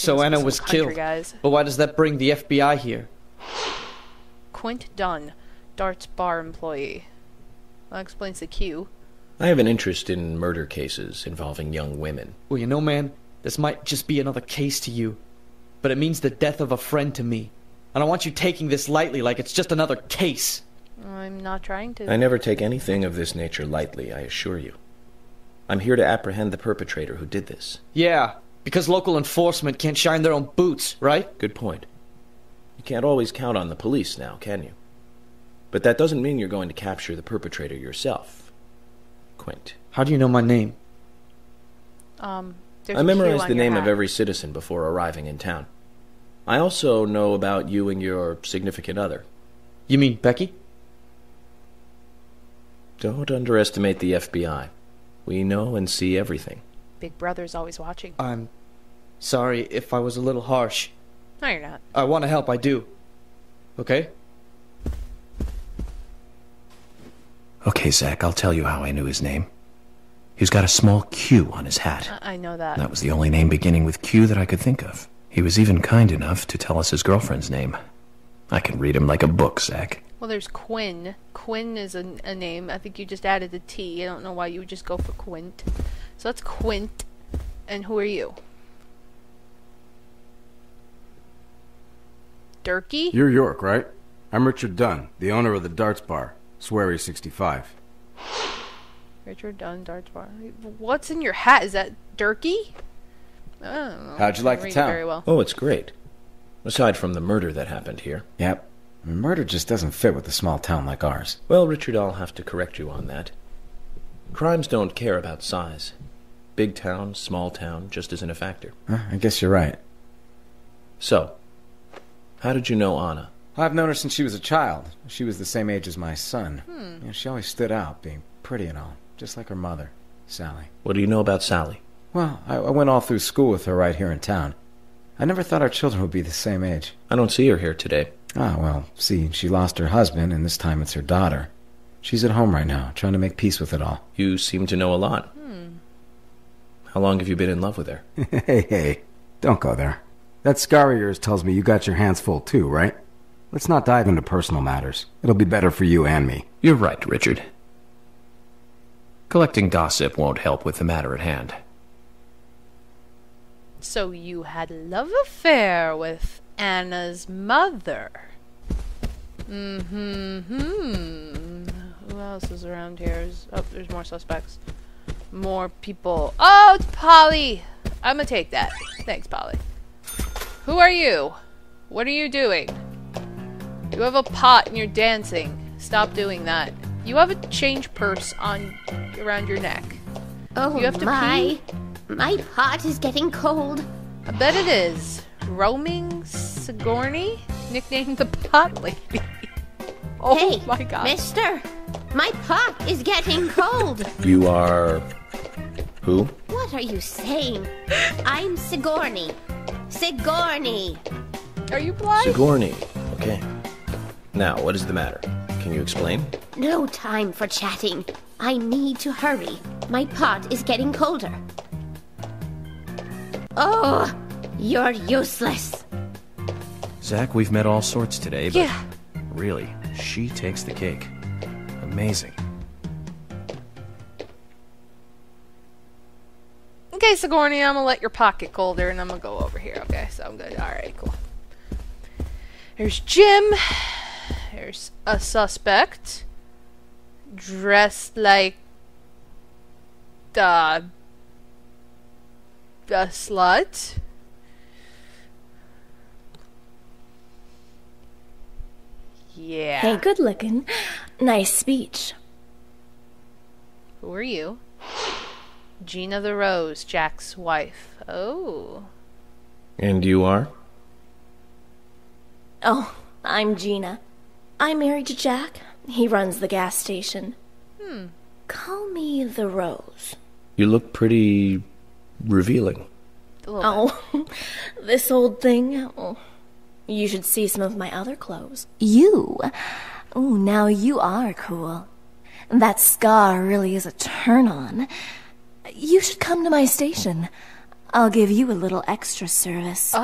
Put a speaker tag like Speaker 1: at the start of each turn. Speaker 1: So Anna
Speaker 2: Some
Speaker 1: was
Speaker 2: country
Speaker 1: killed.
Speaker 2: Guys.
Speaker 1: But why does that bring the FBI here?
Speaker 2: Quint Dunn, Dart's bar employee. That explains the Q.
Speaker 3: I have an interest in murder cases involving young women.
Speaker 1: Well, you know, man, this might just be another case to you, but it means the death of a friend to me. I don't want you taking this lightly like it's just another case.
Speaker 2: I'm not trying to.
Speaker 3: I never take anything of this nature lightly, I assure you. I'm here to apprehend the perpetrator who did this.
Speaker 1: Yeah, because local enforcement can't shine their own boots, right?
Speaker 3: Good point. You can't always count on the police now, can you? But that doesn't mean you're going to capture the perpetrator yourself. Quint.
Speaker 1: How do you know my name?
Speaker 2: Um, there's
Speaker 3: I
Speaker 2: a Q
Speaker 3: memorized
Speaker 2: on
Speaker 3: the
Speaker 2: your
Speaker 3: name
Speaker 2: hat.
Speaker 3: of every citizen before arriving in town. I also know about you and your significant other.
Speaker 1: You mean Becky?
Speaker 3: Don't underestimate the FBI. We know and see everything.
Speaker 2: Big Brother's always watching.
Speaker 1: I'm sorry if I was a little harsh.
Speaker 2: No, you're not.
Speaker 1: I want to help, I do. Okay?
Speaker 4: Okay, Zach, I'll tell you how I knew his name. He's got a small Q on his hat.
Speaker 2: I, I know that.
Speaker 4: That was the only name beginning with Q that I could think of. He was even kind enough to tell us his girlfriend's name. I can read him like a book, Zach.
Speaker 2: Well, there's Quinn. Quinn is a, a name. I think you just added the T. I don't know why you would just go for Quint. So that's Quint. And who are you? Durkee?
Speaker 5: You're York, right? I'm Richard Dunn, the owner of the Darts Bar, Swery 65.
Speaker 2: Richard Dunn, Darts Bar. What's in your hat? Is that Durkee? I don't know.
Speaker 5: How'd you like the
Speaker 2: Read
Speaker 5: town?
Speaker 2: Very well.
Speaker 3: Oh, it's great. Aside from the murder that happened here.
Speaker 6: Yep. I mean, murder just doesn't fit with a small town like ours.
Speaker 3: Well, Richard, I'll have to correct you on that. Crimes don't care about size. Big town, small town, just isn't a factor.
Speaker 6: Huh, I guess you're right.
Speaker 3: So, how did you know Anna?
Speaker 6: I've known her since she was a child. She was the same age as my son. You know, she always stood out, being pretty and all, just like her mother, Sally.
Speaker 3: What do you know about Sally?
Speaker 6: Well, I, I went all through school with her right here in town. I never thought our children would be the same age.
Speaker 3: I don't see her here today.
Speaker 6: Ah, well, see, she lost her husband, and this time it's her daughter. She's at home right now, trying to make peace with it all.
Speaker 3: You seem to know a lot. How long have you been in love with her?
Speaker 5: hey, hey, don't go there. That scar of yours tells me you got your hands full too, right? Let's not dive into personal matters. It'll be better for you and me.
Speaker 4: You're right, Richard. Collecting gossip won't help with the matter at hand.
Speaker 2: So you had a love affair with Anna's mother. Mm-hmm. Who else is around here? Is- Oh, there's more suspects. More people. Oh, it's Polly. I'm gonna take that. Thanks, Polly. Who are you? What are you doing? You have a pot and you're dancing. Stop doing that. You have a change purse on around your neck.
Speaker 7: Oh
Speaker 2: You have to
Speaker 7: my. My pot is getting cold.
Speaker 2: I bet it is. Roaming Sigourney, nicknamed the Pot Lady. oh
Speaker 7: hey,
Speaker 2: my god.
Speaker 7: mister, my pot is getting cold.
Speaker 3: You are. Who?
Speaker 7: what are you saying? I'm Sigourney. Sigourney.
Speaker 2: Are you blind?
Speaker 3: Sigourney. Okay. Now, what is the matter? Can you explain?
Speaker 7: No time for chatting. I need to hurry. My pot is getting colder. Oh, you're useless.
Speaker 4: Zach, we've met all sorts today, but
Speaker 2: yeah.
Speaker 4: really, she takes the cake. Amazing.
Speaker 2: Okay, Sigourney, I'm gonna let your pocket colder and I'm gonna go over here. Okay, so I'm good. Alright, cool. There's Jim. There's a suspect. Dressed like the the slut. Yeah.
Speaker 8: Hey, good looking. Nice speech.
Speaker 2: Who are you? Gina the Rose, Jack's wife. Oh.
Speaker 3: And you are?
Speaker 8: Oh, I'm Gina. I'm married to Jack. He runs the gas station. Hmm. Call me the Rose.
Speaker 3: You look pretty. revealing.
Speaker 2: A little
Speaker 8: Oh, this old thing. Oh, you should see some of my other clothes. You. Oh, now you are cool. That scar really is a turn on. You should come to my station. I'll give you a little extra service.